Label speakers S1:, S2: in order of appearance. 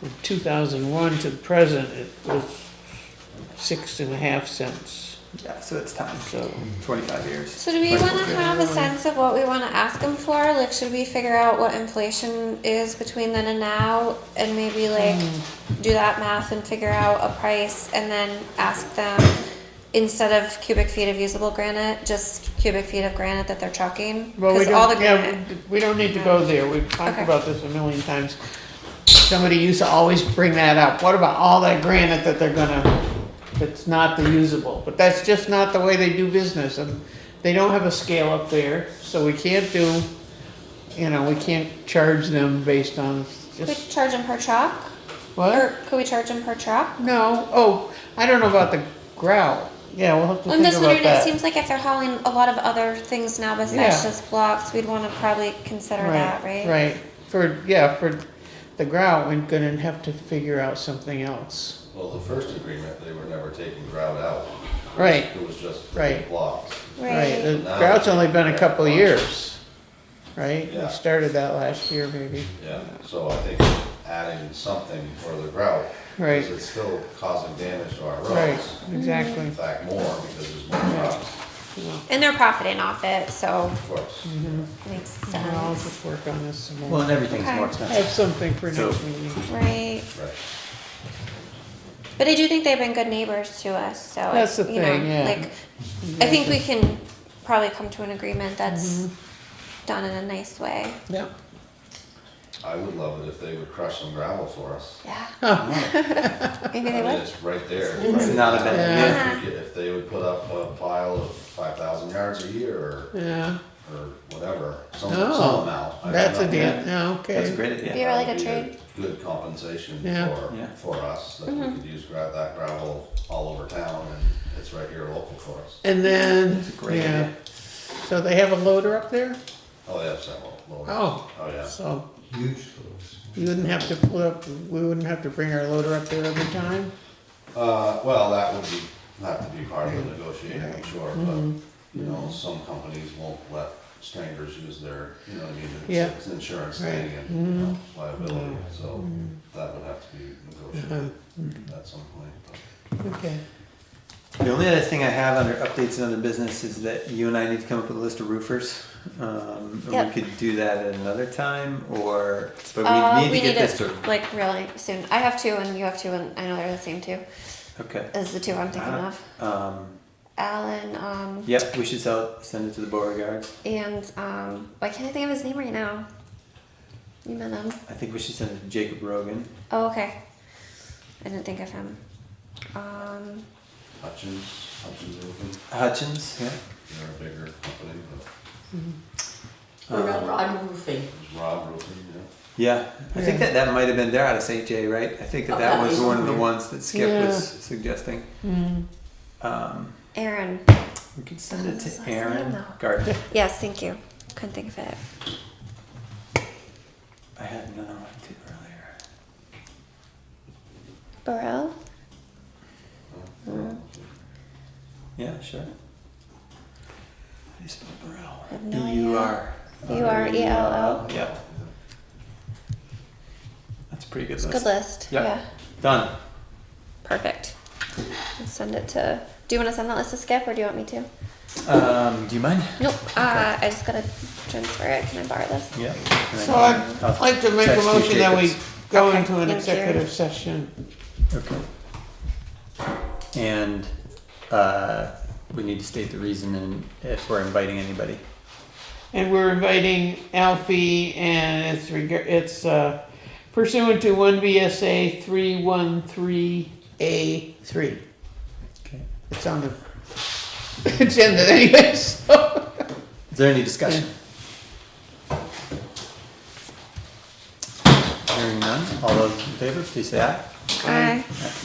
S1: From 2001 to the present, it was six and a half cents,
S2: Yeah, so it's time.
S1: so.
S2: 25 years.
S3: So do we
S2: Right,
S3: want to
S2: okay.
S3: have a sense of what we want to ask them for? Like, should we figure out what inflation is between then and now, and maybe like
S1: Hmm.
S3: do that math and figure out a price, and then ask them instead of cubic feet of usable granite, just cubic feet of granite that they're trucking?
S1: Well, we
S3: Because all the
S1: don't,
S3: granite.
S1: yeah, we don't need to go there, we've talked
S3: Okay.
S1: about this a million times. Somebody used to always bring that up, what about all that granite that they're gonna, that's not the usable? But that's just not the way they do business, and they don't have a scale up there, so we can't do, you know, we can't charge them based on
S3: Could we
S1: just,
S3: charge them per truck?
S1: what?
S3: Or could we charge them per truck?
S1: No, oh, I don't know about the grout, yeah, we'll have to
S3: I'm
S1: think
S3: just
S1: about
S3: wondering, it
S1: that.
S3: seems like if they're hauling a lot of other things now besides
S1: Yeah.
S3: just blocks, we'd wanna probably consider that, right?
S1: Right, for, yeah, for the grout, we're gonna have to figure out something else.
S4: Well, the first agreement, they were never taking grout out.
S1: Right.
S4: It was just
S1: Right.
S4: blocks.
S1: Right, the
S3: Right,
S4: Now
S1: drought's
S4: they-
S1: only been a couple of
S4: Yeah.
S1: years, right?
S4: Yeah.
S1: We started that last year, maybe.
S4: Yeah, so I think adding something for the grout.
S1: Right.
S4: Because it's still causing damage to our
S1: Right,
S4: roads.
S3: Mm-hmm.
S1: exactly.
S4: In fact, more because there's more rocks,
S3: and they're profiting off it, so
S4: of course.
S1: Mm-hmm.
S3: makes
S1: Yeah, I'll
S3: sense,
S1: just work on this some
S2: Well,
S1: more.
S2: and everything's
S3: Okay.
S2: more
S1: I
S2: expensive.
S1: have something for
S2: So-
S1: next meeting.
S3: right?
S4: Right.
S3: But I do think they've been good neighbors to us, so. I-
S1: That's the
S3: you know,
S1: thing, yeah.
S3: Like, I think we can probably come to an agreement that's
S1: Mm-hmm.
S3: done in a nice way,
S1: Yeah.
S4: I would love it if they would crush some gravel for us.
S3: yeah.
S2: Oh.
S3: Maybe they
S4: I mean,
S3: would,
S4: it's right there.
S2: It's
S4: right
S2: not a
S4: now.
S2: bad
S1: Yeah.
S4: If we could- If they would put up a pile of five thousand yards a year or,
S1: Yeah,
S4: or whatever, some,
S1: Oh,
S4: some amount. I don't
S1: that's a
S4: know.
S1: deal, yeah,
S2: That's a
S1: okay.
S2: great idea.
S3: be a really good
S4: Be a
S3: trade, Mm-hmm.
S4: Good compensation
S1: Yeah.
S4: for,
S2: Yeah.
S4: for us, that we could use gra- that gravel all over town and it's right here local for us.
S1: And then,
S2: That's a great
S1: yeah,
S2: idea.
S1: so they have a loader up there?
S4: Oh, they have several. loaders.
S1: Oh.
S4: Oh, yeah.
S1: So
S5: Huge schools.
S1: you wouldn't have to pull up, we wouldn't have to bring our loader up there every time?
S4: Uh, well, that would be, have to be part of the negotiating, I'm sure,
S1: Mm-hmm.
S4: but, you know, some companies won't let strangers use their, you know, what I mean,
S1: Yeah. Mm-hmm.
S4: it's- it's an insurance thing and, you know, liability, so that would have to be negotiated
S1: Uh-huh. Mm-hmm.
S4: at some point. but-
S1: Okay,
S2: The only other thing I have under updates and other business is that you and I need to come up with a list of roofers. Um, and
S3: Yep.
S2: we could do that at another time, or but we
S3: uh,
S2: need
S3: we
S2: to
S3: need
S2: get this
S3: it,
S2: to.
S3: like, really soon, I have two and you have two and I know they're the same two,
S2: Okay.
S3: is the two I'm thinking
S2: Uh,
S3: of.
S2: Um,
S3: Alan, um,
S2: yep, we should sell, send it to the Beauregards.
S3: and um, why can't I think of his name right now? You met him.
S2: I think we should send it to Jacob Rogan.
S3: Oh, okay. I didn't think of him. Um,
S4: Hutchins, Hutchins Roofing,
S2: Hutchins, yeah.
S4: they're a bigger company, but
S2: Um,
S6: I'm roofing.
S4: it's Rob Roofing, yeah.
S2: Yeah, I think that that might have been there out of St. J, right? I
S3: Oh,
S2: think that that was one of the ones that Skip was suggesting. Um,
S3: Aaron.
S2: we could send it
S3: His last
S2: to
S3: name,
S2: Aaron
S3: though.
S2: Gardner.
S3: Yes, thank you. Couldn't think of it.
S2: I had another one too earlier.
S3: Burrell.
S4: Uh-huh.
S2: Yeah, sure. How do you spell Burrell?
S3: have no idea.
S2: B U R. E
S3: E B-U-R-E-L-L.
S2: Yep. That's a pretty good
S3: It's a
S2: list.
S3: good list.
S2: Yeah.
S3: Yeah.
S2: Done.
S3: Perfect. I'll send it to. Do you want to send that list to Skip, or do you want me to?
S2: Um, do you mind?
S3: Nope. Uh, I just gotta transfer it. Can I borrow this?
S2: Yeah.
S1: so I'd I'd like to make a
S2: Text you,
S1: motion that we
S2: Jacobs.
S1: go
S3: Okay,
S1: into an
S3: thank you.
S1: executive session.
S2: Okay. And uh, we need to state the reason and if we're inviting anybody.
S1: And we're inviting Alfie and it's reg- it's uh, pursuant to one VSA three one three A three.
S2: Okay.
S1: It's on the agenda anyway, so.
S2: Is there any discussion? Hearing none, all those in favor, please say aye.
S3: Aye.
S2: Aye.